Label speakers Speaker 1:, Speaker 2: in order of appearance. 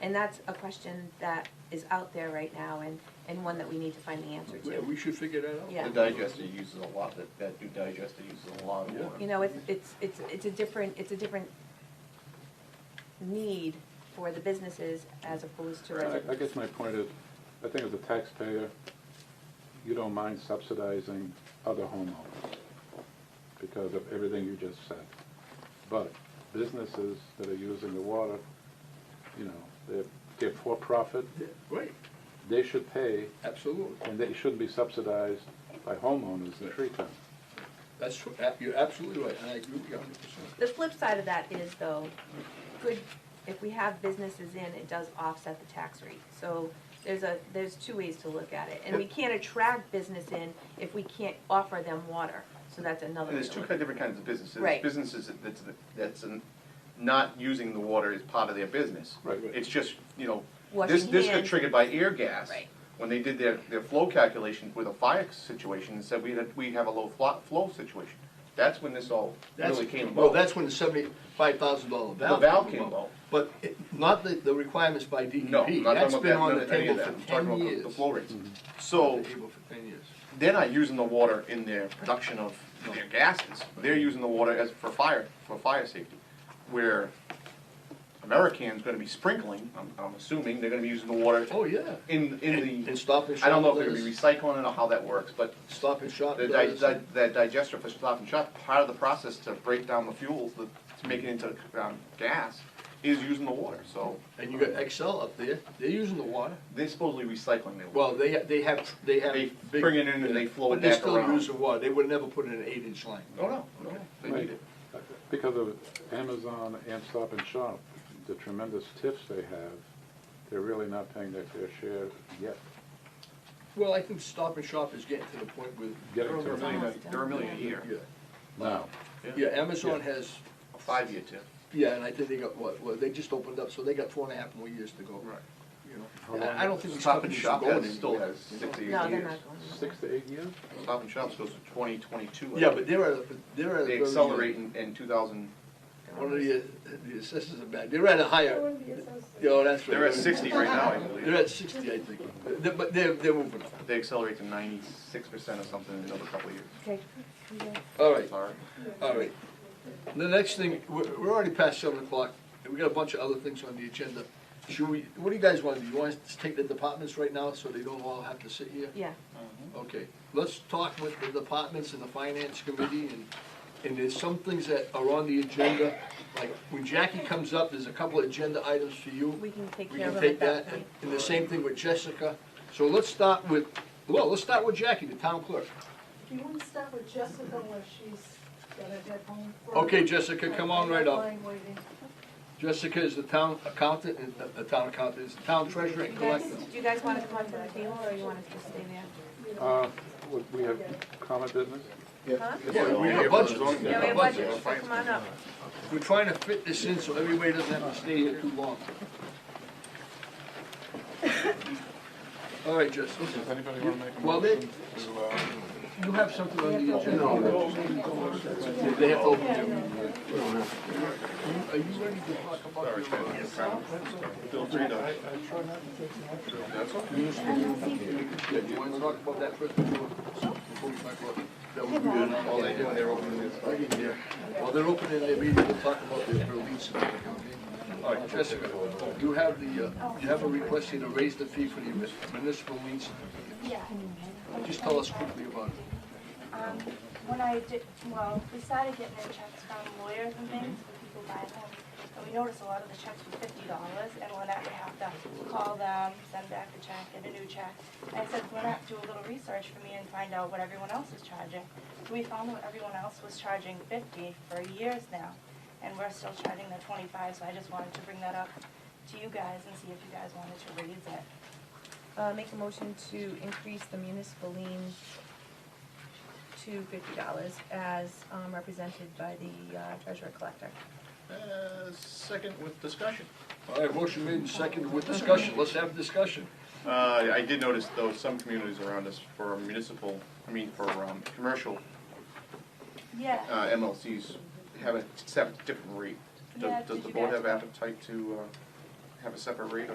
Speaker 1: And that's a question that is out there right now and, and one that we need to find the answer
Speaker 2: Yeah,
Speaker 1: to.
Speaker 2: we should figure that out.
Speaker 1: Yeah.
Speaker 3: The digester uses a lot, that, that new digester uses a lot of
Speaker 2: Yeah.
Speaker 3: water.
Speaker 1: You know, it's, it's, it's, it's a different, it's a different need for the businesses as opposed to
Speaker 4: I I
Speaker 1: residents.
Speaker 4: guess my point is, I think as a taxpayer, you don't mind subsidizing other homeowners because of everything you just said. But businesses that are using the water, you know, they're, they're for profit,
Speaker 2: Yeah, Right,
Speaker 4: they should pay,
Speaker 2: absolutely.
Speaker 4: and they shouldn't be subsidized by homeowners in Freetown.
Speaker 2: That's, tr- a- you're absolutely right, and I agree with you a hundred percent.
Speaker 1: The flip side of that is though, good, if we have businesses in, it does offset the tax rate. So there's a, there's two ways to look at it. And we can't attract business in if we can't offer them water. So that's another.
Speaker 3: And there's
Speaker 1: way to
Speaker 3: two
Speaker 1: look
Speaker 3: kind of different kinds of businesses. There's
Speaker 1: Right.
Speaker 3: Businesses that- that's, that's an- not using the water is part of their business.
Speaker 4: Right.
Speaker 3: It's just, you know, this,
Speaker 1: Washing
Speaker 3: this got
Speaker 1: hands.
Speaker 3: triggered by air gas.
Speaker 1: Right.
Speaker 3: When they did their, their flow calculation with a fire situation and said we had, we have a low flo- flow situation. That's when this all
Speaker 5: That's,
Speaker 3: really came about.
Speaker 5: well, that's when the seventy-five thousand dollar
Speaker 3: The
Speaker 5: valve.
Speaker 3: valve came about.
Speaker 5: But it- not the, the requirements by DEP.
Speaker 3: No, I'm not
Speaker 5: That's
Speaker 3: talking
Speaker 5: been on
Speaker 3: about
Speaker 5: the
Speaker 3: that, no, any
Speaker 5: table
Speaker 3: of that.
Speaker 5: for
Speaker 3: I'm talking
Speaker 5: ten
Speaker 3: about the-
Speaker 5: years. Mm-hmm.
Speaker 3: the flow rates.
Speaker 5: On
Speaker 3: So
Speaker 5: the table for ten years.
Speaker 3: they're not using the water in their production of their gases. They're using the water as, for fire, for fire safety. Where American's gonna be sprinkling, I'm, I'm assuming, they're gonna be using the water
Speaker 5: Oh, yeah.
Speaker 3: in, in
Speaker 5: And and
Speaker 3: the,
Speaker 5: Stop and Shop
Speaker 3: I don't know if they're gonna
Speaker 5: does-
Speaker 3: be recycling it or how that works, but
Speaker 5: Stop and Shop
Speaker 3: the di-
Speaker 5: does.
Speaker 3: di- that digester for Stop and Shop, part of the process to break down the fuels, the- to make it into, um, gas, is using the water, so
Speaker 5: And you got Excel up there, they're using the water.
Speaker 3: they're supposedly recycling their water.
Speaker 5: Well, they, they have, they have.
Speaker 3: They
Speaker 5: big-
Speaker 3: bring it in and they flow it
Speaker 5: But they
Speaker 3: back
Speaker 5: still
Speaker 3: around.
Speaker 5: use the water, they would never put in an eight-inch line.
Speaker 3: Oh, no, no, they need it.
Speaker 4: Because of Amazon and Stop and Shop, the tremendous tips they have, they're really not paying their fair share yet.
Speaker 5: Well, I think Stop and Shop is getting to the point with,
Speaker 3: They're
Speaker 4: Getting
Speaker 3: over
Speaker 4: to
Speaker 3: a
Speaker 4: the
Speaker 3: million,
Speaker 1: almost
Speaker 3: a- they're a million a year,
Speaker 5: yeah,
Speaker 4: now.
Speaker 5: yeah, Amazon has,
Speaker 3: a five-year tip.
Speaker 5: yeah, and I think they got, what, well, they just opened up, so they got four and a half more years to go.
Speaker 3: Right.
Speaker 5: You
Speaker 4: How
Speaker 5: know,
Speaker 4: long-
Speaker 5: I- I don't think these
Speaker 3: Stop and
Speaker 5: companies are
Speaker 3: Shop
Speaker 5: going
Speaker 3: has,
Speaker 5: anywhere.
Speaker 3: still has six to eight
Speaker 1: at it. No, they're
Speaker 3: years.
Speaker 1: not going. anywhere.
Speaker 4: Six to eight years?
Speaker 3: Stop and Shop's goes to twenty twenty-two.
Speaker 5: Yeah, but they're at, a- they're at. a
Speaker 3: They
Speaker 5: very-
Speaker 3: accelerate in, in two thousand,
Speaker 5: One of the, the assessors are bad, they're at a higher, you know, that's right.
Speaker 3: they're at sixty right now, I
Speaker 5: They're
Speaker 3: believe.
Speaker 5: at sixty, I think, They're- but they're, they're moving up.
Speaker 3: They accelerate to ninety-six percent or something in another couple of years.
Speaker 1: Okay.
Speaker 5: All right,
Speaker 3: Sorry.
Speaker 5: All right. The next thing, we're, we're already past seven o'clock, and we got a bunch of other things on the agenda. Should we, what do you guys want to do? You want us to take the departments right now, so they don't all have to sit here?
Speaker 1: Yeah,
Speaker 5: Okay, let's talk with the departments and the finance committee, and, and there's some things that are on the agenda. Like, when Jackie comes up, there's a couple of agenda items for you.
Speaker 1: we can take
Speaker 5: We
Speaker 1: care
Speaker 5: can
Speaker 1: of it
Speaker 5: take
Speaker 1: at that
Speaker 5: that,
Speaker 1: point.
Speaker 5: and the same thing with Jessica. So let's start with, well, let's start with Jackie, the town clerk.
Speaker 6: Do you want to start with Jessica where she's got to head home? for-
Speaker 5: Okay, Jessica, come on right up.
Speaker 6: Line waiting.
Speaker 5: Jessica is the town accountant, and uh, the town accountant is the town treasurer
Speaker 1: Do you
Speaker 5: and
Speaker 1: guys,
Speaker 5: collector.
Speaker 1: do you guys wanna come up to the table or you want us to stay there?
Speaker 4: Uh, we- we have comment business?
Speaker 1: Huh?
Speaker 5: Yeah, we have a bunch of-
Speaker 1: Yeah, we have
Speaker 5: a bunch
Speaker 1: budget, so come on up.
Speaker 5: We're trying to fit this in so everybody doesn't have to stay here too long. All right, Jessica,
Speaker 4: Does anybody want to make a
Speaker 5: Well, they-
Speaker 4: motion to, uh,
Speaker 5: you have something on the agenda? They have to open it. Are you ready to talk about your... uh,
Speaker 3: Feel free to.
Speaker 5: Yeah, do you want to talk about that first before, before we talk about that would be another-
Speaker 3: All they do, they're opening this.
Speaker 5: Yeah. While they're opening their meeting, we'll talk about their release. All right, Jessica, you have the, uh, you have a request here to raise the fee for the municipal lien certificates.
Speaker 7: Yeah,
Speaker 5: Just tell us quickly about it.
Speaker 7: um, when I did, well, we started getting our checks from lawyers and things, when people buy them, and we noticed a lot of the checks were fifty dollars, and Lynette would have to call them, send back the check, get a new check. And I said, Lynette, do a little research for me and find out what everyone else is charging. So we found that everyone else was charging fifty for years now, and we're still charging the twenty-five, so I just wanted to bring that up to you guys and see if you guys wanted to raise it.
Speaker 1: Uh, make a motion to increase the municipal lien to fifty dollars as, um, represented by the uh, treasurer collector.
Speaker 3: Uh, second with discussion.
Speaker 5: All right, motion made and seconded with discussion. Let's have discussion.
Speaker 3: Uh, I did notice though, some communities around us for municipal, I mean, for, um, commercial,
Speaker 7: Yeah.
Speaker 3: uh, MLCs have a, set different rate. Does-
Speaker 7: Yeah,
Speaker 3: Does
Speaker 7: did
Speaker 3: the
Speaker 7: you
Speaker 3: board
Speaker 7: guys-
Speaker 3: have appetite to, uh, have a separate rate